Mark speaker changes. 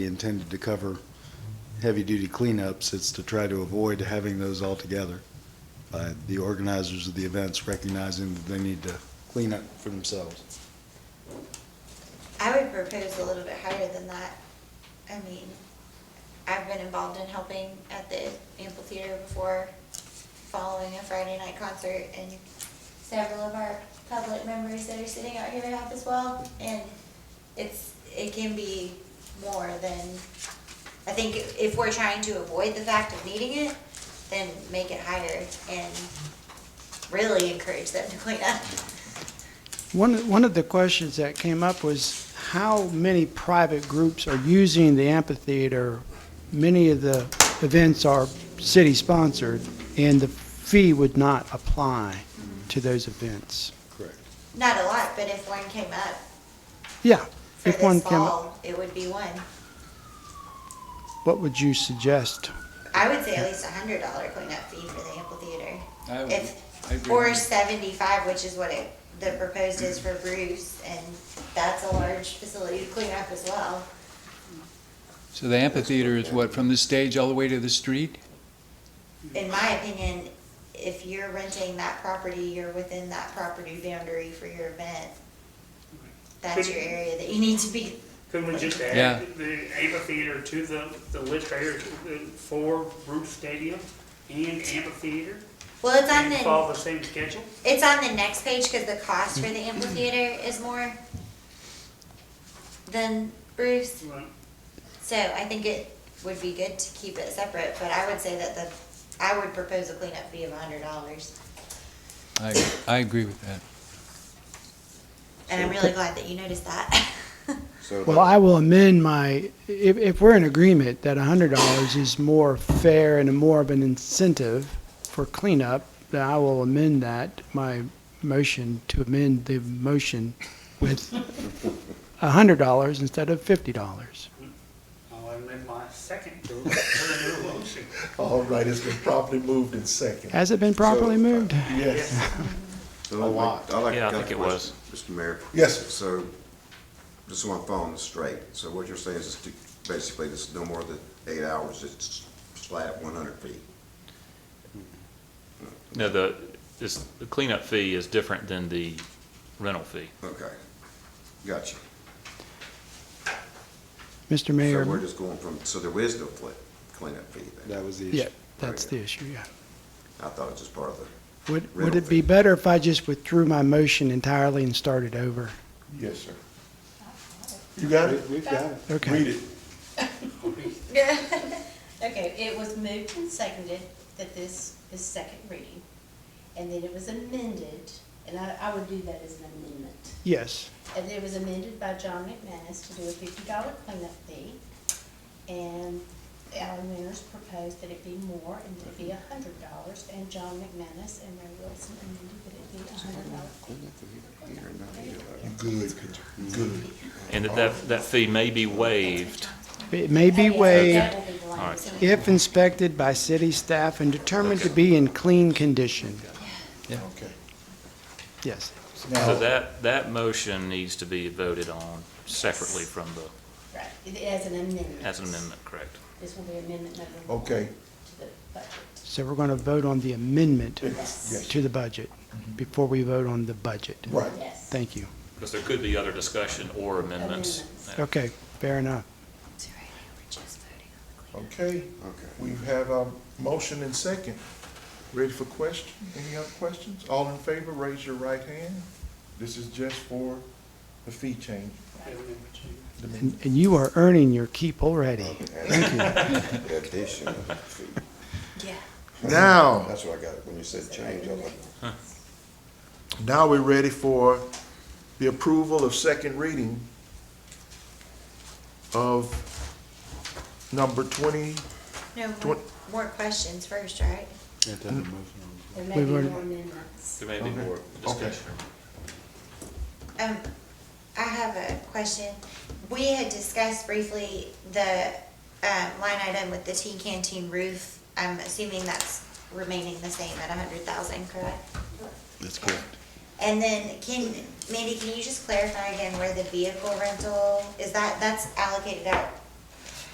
Speaker 1: intended to cover heavy-duty cleanups, it's to try to avoid having those altogether by the organizers of the events recognizing that they need to clean up for themselves.
Speaker 2: I would propose a little bit higher than that. I mean, I've been involved in helping at the amphitheater before, following a Friday night concert, and several of our public members that are sitting out here have as well, and it's, it can be more than, I think if we're trying to avoid the fact of needing it, then make it higher and really encourage them to clean up.
Speaker 3: One, one of the questions that came up was how many private groups are using the amphitheater? Many of the events are city-sponsored, and the fee would not apply to those events.
Speaker 1: Correct.
Speaker 2: Not a lot, but if one came up,
Speaker 3: Yeah,
Speaker 2: For
Speaker 3: if one
Speaker 2: this
Speaker 3: came up,
Speaker 2: fall, it would be one.
Speaker 3: what would you suggest?
Speaker 2: I would say at least a hundred dollar cleanup fee for the amphitheater.
Speaker 4: I would, I
Speaker 2: If,
Speaker 4: agree.
Speaker 2: or seventy-five, which is what it, the proposed is for Bruce, and that's a large facility to clean up as well.
Speaker 4: So the amphitheater is what, from the stage all the way to the street?
Speaker 2: In my opinion, if you're renting that property, you're within that property boundary for your event. That's your area that you need to be,
Speaker 5: Couldn't we just
Speaker 4: Yeah.
Speaker 5: add the amphitheater to the, the lit trailer for Bruce Stadium and amphitheater?
Speaker 2: well, it's on
Speaker 5: And
Speaker 2: the,
Speaker 5: follow the same schedule?
Speaker 2: it's on the next page, cause the cost for the amphitheater is more than Bruce.
Speaker 5: Right.
Speaker 2: So I think it would be good to keep it separate, but I would say that the, I would propose a cleanup fee of a hundred dollars.
Speaker 4: I, I agree with that.
Speaker 2: And I'm really glad that you noticed that.
Speaker 3: Well, I will amend my, if, if we're in agreement that $100 is more fair and more of an incentive for cleanup, then I will amend that, my motion, to amend the motion with $100 instead of $50.
Speaker 5: I'll amend my second to the new motion.
Speaker 6: All right, it's been properly moved and second.
Speaker 3: Has it been
Speaker 6: uh,
Speaker 3: properly moved?
Speaker 6: Yes.
Speaker 7: So I'd like- I'd like to
Speaker 8: Yeah, I
Speaker 7: cut
Speaker 8: think
Speaker 7: the
Speaker 8: it was.
Speaker 7: question, Mr. Mayor.
Speaker 6: Yes, sir.
Speaker 7: So, just so I'm following this straight, so what you're saying is to, basically, this is no more than eight hours, it's flat one hundred feet.
Speaker 8: No, the, this, the cleanup fee is different than the rental fee.
Speaker 7: Okay, gotcha.
Speaker 3: Mr.
Speaker 7: So we're
Speaker 3: Mayor,
Speaker 7: just going from, so there is no flip, cleanup fee then?
Speaker 1: That was the issue.
Speaker 3: yeah, that's the issue, yeah.
Speaker 7: I thought it was just part of the,
Speaker 3: Would, would
Speaker 7: Rental
Speaker 3: it be
Speaker 7: fee.
Speaker 3: better if I just withdrew my motion entirely and started over?
Speaker 6: Yes, sir. You got it?
Speaker 1: We- We've got it.
Speaker 3: Okay.
Speaker 6: Read it.
Speaker 9: Okay, it was moved and seconded that this is second reading, and then it was amended, and I, I would do that as an amendment.
Speaker 3: Yes,
Speaker 9: And it was amended by John McManus to do a fifty dollar cleanup fee, and Alan Mears proposed that it be more, and that it be a hundred dollars, and John McManus and Ray Wilson amended that it be a hundred dollars.
Speaker 6: Good, good.
Speaker 8: And that- that, that fee may be waived.
Speaker 3: it may be waived.
Speaker 9: That will be the language.
Speaker 3: If inspected by city staff and determined to be in clean condition.
Speaker 6: Okay.
Speaker 3: Yes.
Speaker 8: So
Speaker 6: Now,
Speaker 8: that, that motion needs to be voted on separately from the,
Speaker 9: Right, it- as an amendment.
Speaker 8: as an amendment, correct?
Speaker 9: This will be amendment number one.
Speaker 6: okay,
Speaker 3: Oh.
Speaker 9: To the budget.
Speaker 3: So we're going to vote on the amendment
Speaker 9: Yes.
Speaker 3: to the budget before we vote on the budget.
Speaker 6: right.
Speaker 9: Yes.
Speaker 3: Thank you.
Speaker 8: Because there could be other discussion or amendments.
Speaker 9: Amendments.
Speaker 3: Okay, fair enough.
Speaker 6: Okay, we have a motion and second. Ready for question? Any other questions? All in favor, raise your right hand. This is just for the fee change. The
Speaker 3: And
Speaker 6: minute.
Speaker 3: and you are earning your keep already.
Speaker 7: thank you. Additional fee.
Speaker 2: Yeah.
Speaker 6: Now,
Speaker 7: That's what I got, when you said change, I was like,
Speaker 6: now we're ready for the approval of second reading of number twenty
Speaker 2: No, more,
Speaker 6: Twen-
Speaker 2: more questions first, right?
Speaker 1: Yeah,
Speaker 6: Mm-hmm.
Speaker 1: that motion on.
Speaker 9: There may
Speaker 3: We've
Speaker 9: be
Speaker 3: already-
Speaker 9: more amendments.
Speaker 8: There may be more discussion.
Speaker 2: Um, I have a question. We had discussed briefly the, uh, line item with the teen canteen roof. I'm assuming that's remaining the same at a hundred thousand, correct?
Speaker 1: That's correct.
Speaker 2: And then can, Mandy, can you just clarify again where the vehicle rental, is that, that's allocated out